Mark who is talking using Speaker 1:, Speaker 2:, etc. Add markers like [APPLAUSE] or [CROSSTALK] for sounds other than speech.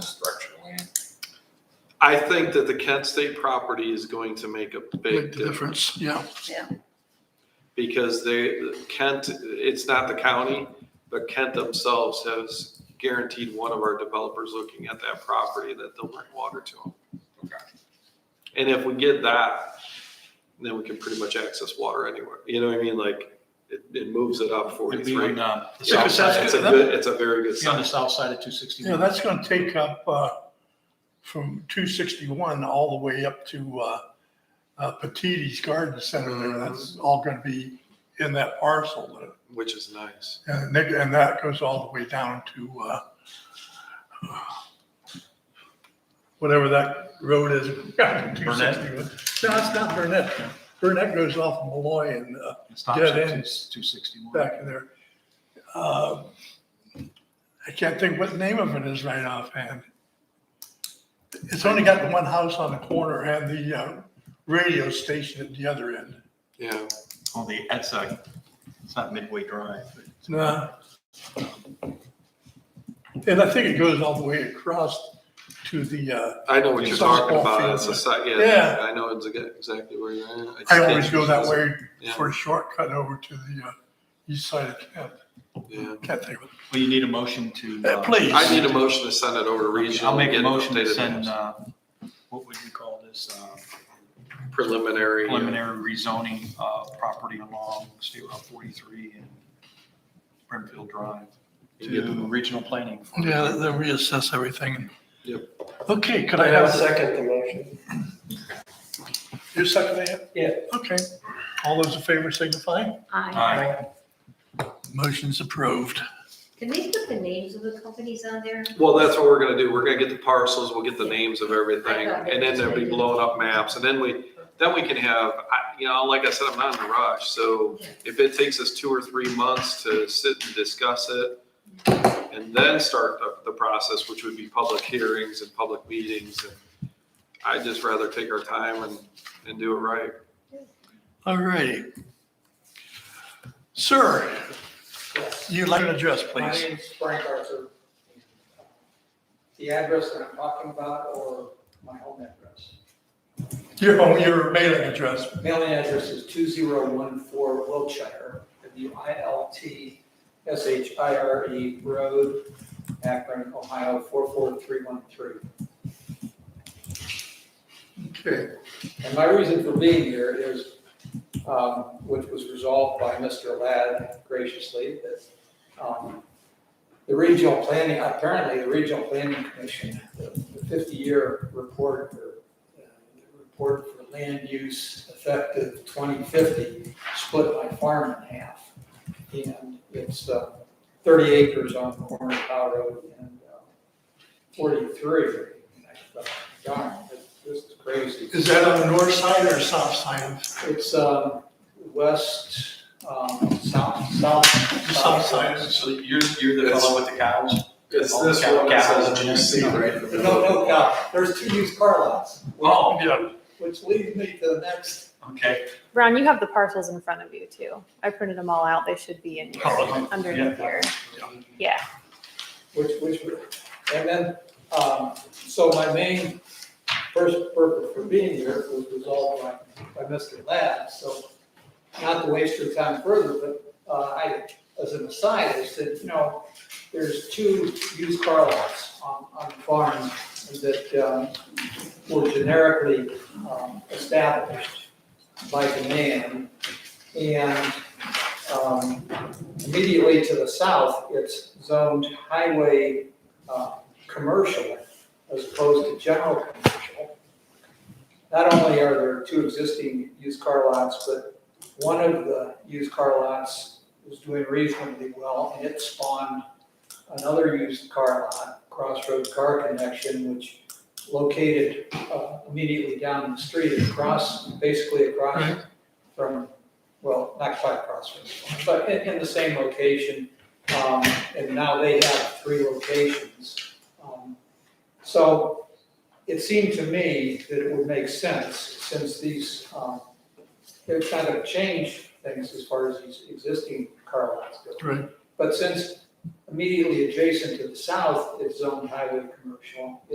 Speaker 1: I think that the Kent State property is going to make a big
Speaker 2: Big
Speaker 1: difference
Speaker 2: difference, yeah.
Speaker 1: because they, Kent, it's not the county, but Kent themselves has guaranteed one of our developers looking at that property that they'll bring water to them.
Speaker 3: Okay.
Speaker 1: And if we get that, then we can pretty much access water anywhere. You know what I mean? Like, it, it moves it up
Speaker 4: It'd be on
Speaker 1: forty-three.
Speaker 4: uh, the south
Speaker 1: Yeah,
Speaker 2: because that's
Speaker 4: side,
Speaker 1: It's a
Speaker 2: good.
Speaker 1: good, it's a very good
Speaker 4: it'd be on the
Speaker 1: sign.
Speaker 4: south side of two sixty.
Speaker 2: Yeah, that's gonna take up, uh, from two sixty-one all the way up to, uh, uh, Petite's Garden Center
Speaker 1: Mm-hmm.
Speaker 2: there. That's all gonna be in that parcel there.
Speaker 1: which is nice.
Speaker 2: And they- and that goes all the way down to, uh, whatever that road is. [LAUGHS] Burnett? No, it's not Burnett. Burnett goes off Malloy and, uh,
Speaker 4: It stops
Speaker 2: Yeah,
Speaker 4: at
Speaker 2: it
Speaker 4: two sixty-one.
Speaker 2: back in there. Uh, I can't think what the name of it is right offhand. It's only got the one house on the corner and the uh, radio station at the other end.
Speaker 1: Yeah.
Speaker 4: On the, that's a, it's not Midway Drive, but
Speaker 2: Nah. And I think it goes all the way across to the, uh,
Speaker 1: I know what you're talking
Speaker 2: Softball
Speaker 1: about.
Speaker 2: field.
Speaker 1: It's a site, yeah,
Speaker 2: Yeah.
Speaker 1: I know it's exa- exactly where you're at. just
Speaker 2: I always
Speaker 1: can't
Speaker 2: go that
Speaker 1: use it.
Speaker 2: way
Speaker 1: Yeah.
Speaker 2: for a shortcut over to the uh, east side of Kent.
Speaker 1: Yeah.
Speaker 2: Can't think of
Speaker 4: Well, you need a motion to.
Speaker 2: it. Uh,
Speaker 4: uh,
Speaker 2: Please.
Speaker 1: I need a motion to send it over to regional.
Speaker 4: I'll make a
Speaker 1: get
Speaker 4: motion to
Speaker 1: updated
Speaker 4: send, uh, what would we call this, uh,
Speaker 1: Preliminary.
Speaker 4: preliminary rezoning, uh, property along State Route forty-three and Brimfield Drive to regional planning.
Speaker 2: Yeah, they'll reassess everything.
Speaker 1: Yep.
Speaker 2: Okay, could
Speaker 5: I
Speaker 2: I
Speaker 5: have
Speaker 2: have
Speaker 5: a
Speaker 2: a second?
Speaker 5: second the motion.
Speaker 2: You second it?
Speaker 5: Yeah.
Speaker 2: Okay. All those in favor signify?
Speaker 6: Aye.
Speaker 4: Aye.
Speaker 2: Motion's approved.
Speaker 6: Can we put the names of the companies on there?
Speaker 1: Well, that's what we're gonna do. We're gonna get the parcels, we'll get the names of everything,
Speaker 6: I got it.
Speaker 1: and then there'll be blown up maps, and then we, then we can have, I, you know, like I said, I'm not in a rush, so if it takes us two or three months to sit and discuss it, and then start the, the process, which would be public hearings and public meetings, and I'd just rather take our time and, and do it right.
Speaker 2: All righty. Sir, you'd like an address,
Speaker 5: My
Speaker 2: please?
Speaker 5: name's Frank Arthur. The address that I'm talking about or my home address?
Speaker 2: Your, oh, your mailing address.
Speaker 5: Mailing address is 2014 Wiltshire, W-I-L-T-S-H-I-R-E E Road, Akron, Ohio 44313.
Speaker 2: Okay.
Speaker 5: And my reason for being here is, um, which was resolved by Mr. Ladd graciously, that, um, the regional planning, apparently the regional planning commission, the fifty-year report, or, uh, the report for land use effective twenty fifty, split my farm in half. And it's, uh, thirty acres on the corner of Powell Road and, uh, forty-three. And I thought, Darn, this- this is crazy.
Speaker 2: Is that on the north side or south side of,
Speaker 5: It's um, west, um, south, south.
Speaker 2: south side?
Speaker 4: So you're, you're the fellow with the cows?
Speaker 1: It's
Speaker 4: this one that says GC
Speaker 1: right
Speaker 5: No, no, God, there's two used car lots,
Speaker 4: Oh,
Speaker 5: which leads me to the next.
Speaker 4: okay.
Speaker 7: Ron, you have the parcels in front of you too. I printed them all out. They should be in
Speaker 4: Oh,
Speaker 7: here,
Speaker 4: okay.
Speaker 7: underneath here. Yeah.
Speaker 5: Which, which, and then, um, so my main first purpose for being here was resolved by, by Mr. Ladd, so not to waste your time further, but, uh, I, as an aside, I said, you know, there's two used car lots on, on the farm that, um, were generically, um, established by demand. And, um, immediately to the south, it's zoned highway, uh, commercial as opposed to general commercial. Not only are there two existing used car lots, but one of the used car lots was doing reasonably well and it spawned another used car lot, Crossroad Car Connection, which located uh, immediately down the street across, basically across from, well, not quite across from, but in, in the same location. Um, And now they have three locations. Um, So it seemed to me that it would make sense, since these, um, they've kind of changed things as far as these existing car lots go.
Speaker 2: Right.
Speaker 5: But since immediately adjacent to the south is zoned highway commercial,